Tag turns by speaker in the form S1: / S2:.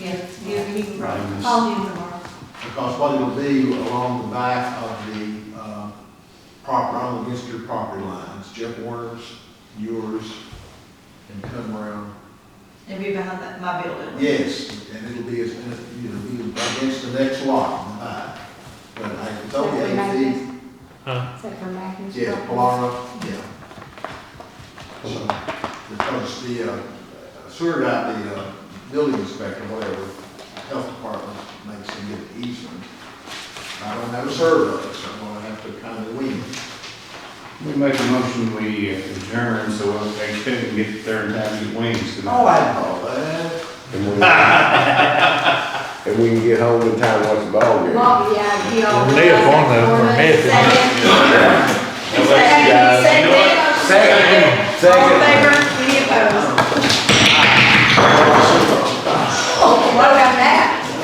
S1: meeting tomorrow.
S2: Right.
S1: Call meeting tomorrow.
S2: Because what it'll be along the back of the, uh, property, on against your property lines, Jeff Warner's, yours, and come around.
S1: And be behind that, my building.
S2: Yes, and it'll be, as- you know, be against the next lot in the back. But I, it's okay, if he-
S3: Huh?
S4: Except for Magnus.
S2: yeah, Polara, yeah. So, because the, uh, sewer guy, the, uh, building inspector, whatever, health department makes them get easement. I don't have a survey, so I'm gonna have to kind of wing it.
S3: We make a motion, we adjourn, so they couldn't get there in time to get wings
S2: Oh,
S3: tonight.
S2: I know that.
S5: And we, and we can get home in time once the ball game.
S4: Well, yeah, you know.
S6: They have one of them for me, if they want.
S1: Second, second.
S5: Second.
S1: All in favor, any opposed?
S4: Oh,